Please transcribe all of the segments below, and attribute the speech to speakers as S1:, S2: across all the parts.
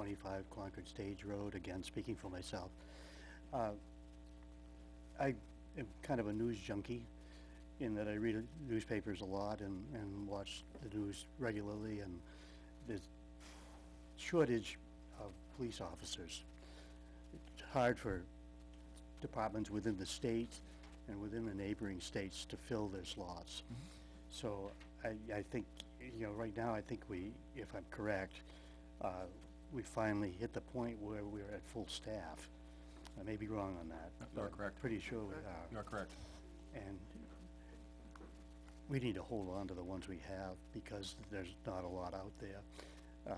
S1: twenty-five Concord Stage Road, again, speaking for myself. Uh, I am kind of a news junkie in that I read newspapers a lot and, and watch the news regularly and there's shortage of police officers. It's hard for departments within the state and within the neighboring states to fill their slots. So I, I think, you know, right now, I think we, if I'm correct, uh, we finally hit the point where we're at full staff. I may be wrong on that.
S2: You are
S1: but
S2: correct.
S1: Pretty sure we are.
S2: You are correct.
S1: And we need to hold on to the ones we have because there's not a lot out there uh,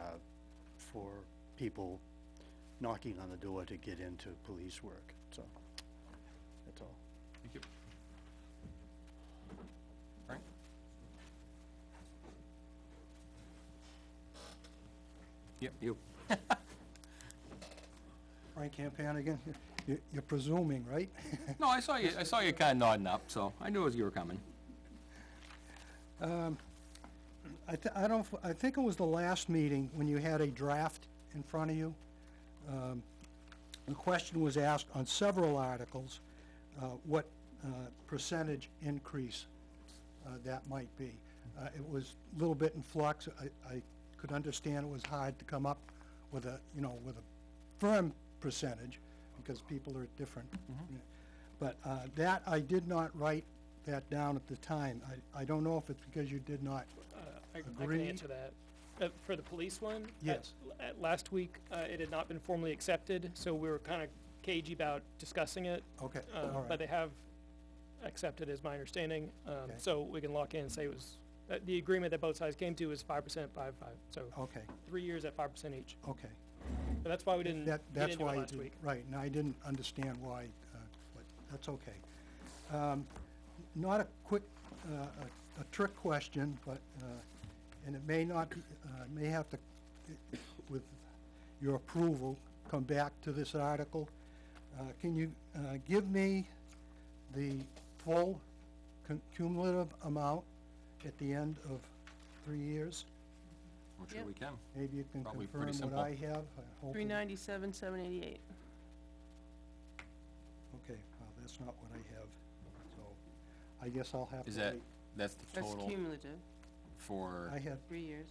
S1: for people knocking on the door to get into police work, so that's all.
S2: Thank you. Frank? Yep, you.
S3: Frank Campan again. You- You're presuming, right?
S2: No, I saw you, I saw you kinda nodding up, so I knew you were coming.
S3: I, th- I don't, I think it was the last meeting when you had a draft in front of you. Um, The question was asked on several articles, uh, what uh, percentage increase uh, that might be. Uh, It was a little bit in flux. I, I could understand it was hard to come up with a, you know, with a firm percentage because people are different. But uh, that, I did not write that down at the time. I, I don't know if it's because you did not
S4: Uh, I, I can
S3: Agreed.
S4: answer that. Uh, for the police one? at-
S3: Yes.
S4: At, last week, uh, it had not been formally accepted, so we were kind of cagey about discussing it.
S3: Okay,
S4: Uh,
S3: all
S4: But
S3: right,
S4: they have accepted, is my understanding. Um,
S3: Okay.
S4: so we can lock in and say it was, uh, the agreement that both sides came to is five percent, five, five. So
S3: okay,
S4: three years at five percent each.
S3: okay.
S4: But that's why we didn't
S3: That,
S4: get
S3: that's
S4: into
S3: why,
S4: it
S3: you
S4: last
S3: did-
S4: week.
S3: right, and I didn't understand why, uh, but that's okay. Um, Not a quick, uh, a- a trick question, but, uh, and it may not, be- uh, may have to, with your approval, come back to this article. Uh, Can you uh, give me the full cum- cumulative amount at the end of three years?
S2: I'm sure
S5: Yep.
S2: we can.
S3: Maybe you can
S2: Probably
S3: confirm
S2: pretty
S3: what
S2: simple.
S3: I have. I hope
S5: Three
S3: it-
S5: ninety-seven, seven eighty-eight.
S3: Okay, well, that's not what I have, so I guess I'll have to
S2: Is that,
S3: wait.
S2: that's the
S5: That's
S2: total
S5: cumulative,
S2: for,
S3: I had,
S5: three years,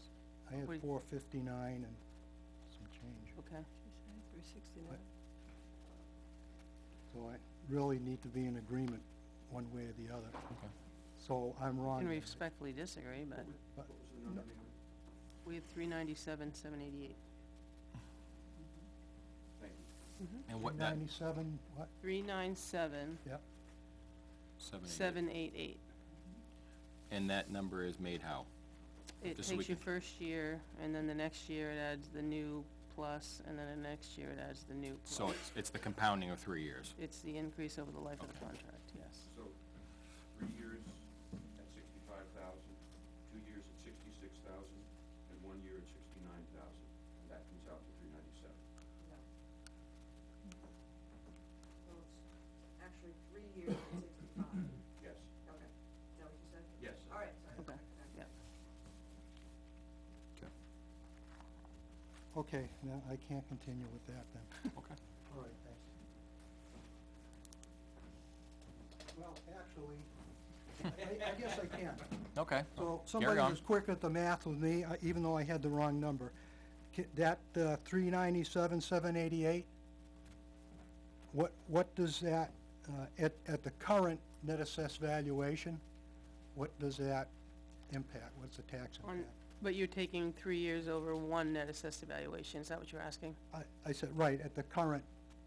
S3: I had
S5: Wait.
S3: four fifty-nine and some change,
S5: okay.
S6: Three sixty-nine.
S3: so I really need to be in agreement one way or the other.
S2: Okay.
S3: So I'm wrong.
S5: Can
S3: there.
S5: respectfully disagree, but
S3: But-
S5: we have three ninety-seven, seven eighty-eight.
S2: and what that,
S3: Ninety-seven, what?
S5: Three nine seven,
S3: Yeah,
S2: seven, eight,
S5: seven eight eight.
S2: and that number is made how?
S5: It
S2: Just so we
S5: takes your
S2: can-
S5: first year, and then the next year it adds the new plus, and then the next year it adds the new
S2: So
S5: plus.
S2: it's, it's the compounding of three years.
S5: It's the increase over the life of the contract, yes.
S7: So, three years at sixty-five thousand, two years at sixty-six thousand, and one year at sixty-nine thousand. And that comes out to three ninety-seven.
S6: Well, it's actually three years and sixty-five.
S7: Yes,
S6: Okay. Is that what you said?
S7: yes.
S6: All right, sorry.
S5: Okay, yeah.
S3: okay, now I can't continue with that then.
S2: Okay.
S3: All right, thanks. Well, actually, I, I guess I can.
S2: Okay.
S3: So somebody
S2: on.
S3: was quick at the math with me, I- even though I had the wrong number. Ki- That uh, three ninety-seven, seven eighty-eight, what, what does that, uh, at, at the current net assessed valuation, what does that impact? What's the tax
S5: On,
S3: impact?
S5: but you're taking three years over one net assessed evaluation, is that what you're asking?
S3: I, I said, right, at the current,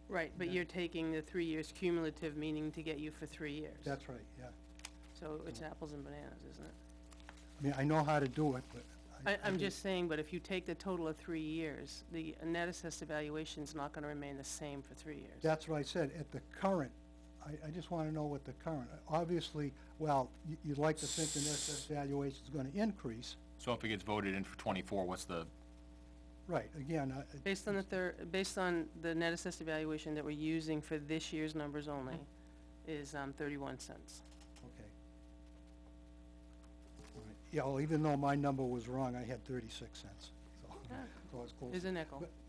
S5: Right, but you're taking the three years cumulative, meaning to get you for three years.
S3: that's right, yeah.
S5: So it's apples and bananas, isn't it?
S3: I mean, I know how to do it, but.
S5: I, I'm
S3: didn't-
S5: just saying, but if you take the total of three years, the net assessed evaluation's not gonna remain the same for three years.
S3: That's what I said, at the current, I, I just wanna know what the current, obviously, well, you, you'd like to think the net assessed valuation's gonna increase,
S2: So if it gets voted in for twenty-four, what's the,
S3: Right, again, I- I-
S5: Based on the thir- based on the net assessed evaluation that we're using for this year's numbers only,
S3: Mm.
S5: is, um, thirty-one cents.
S3: okay. All right. Yeah, well, even though my number was wrong, I had thirty-six cents, so, so it's close.
S5: Is a nickel.
S3: But-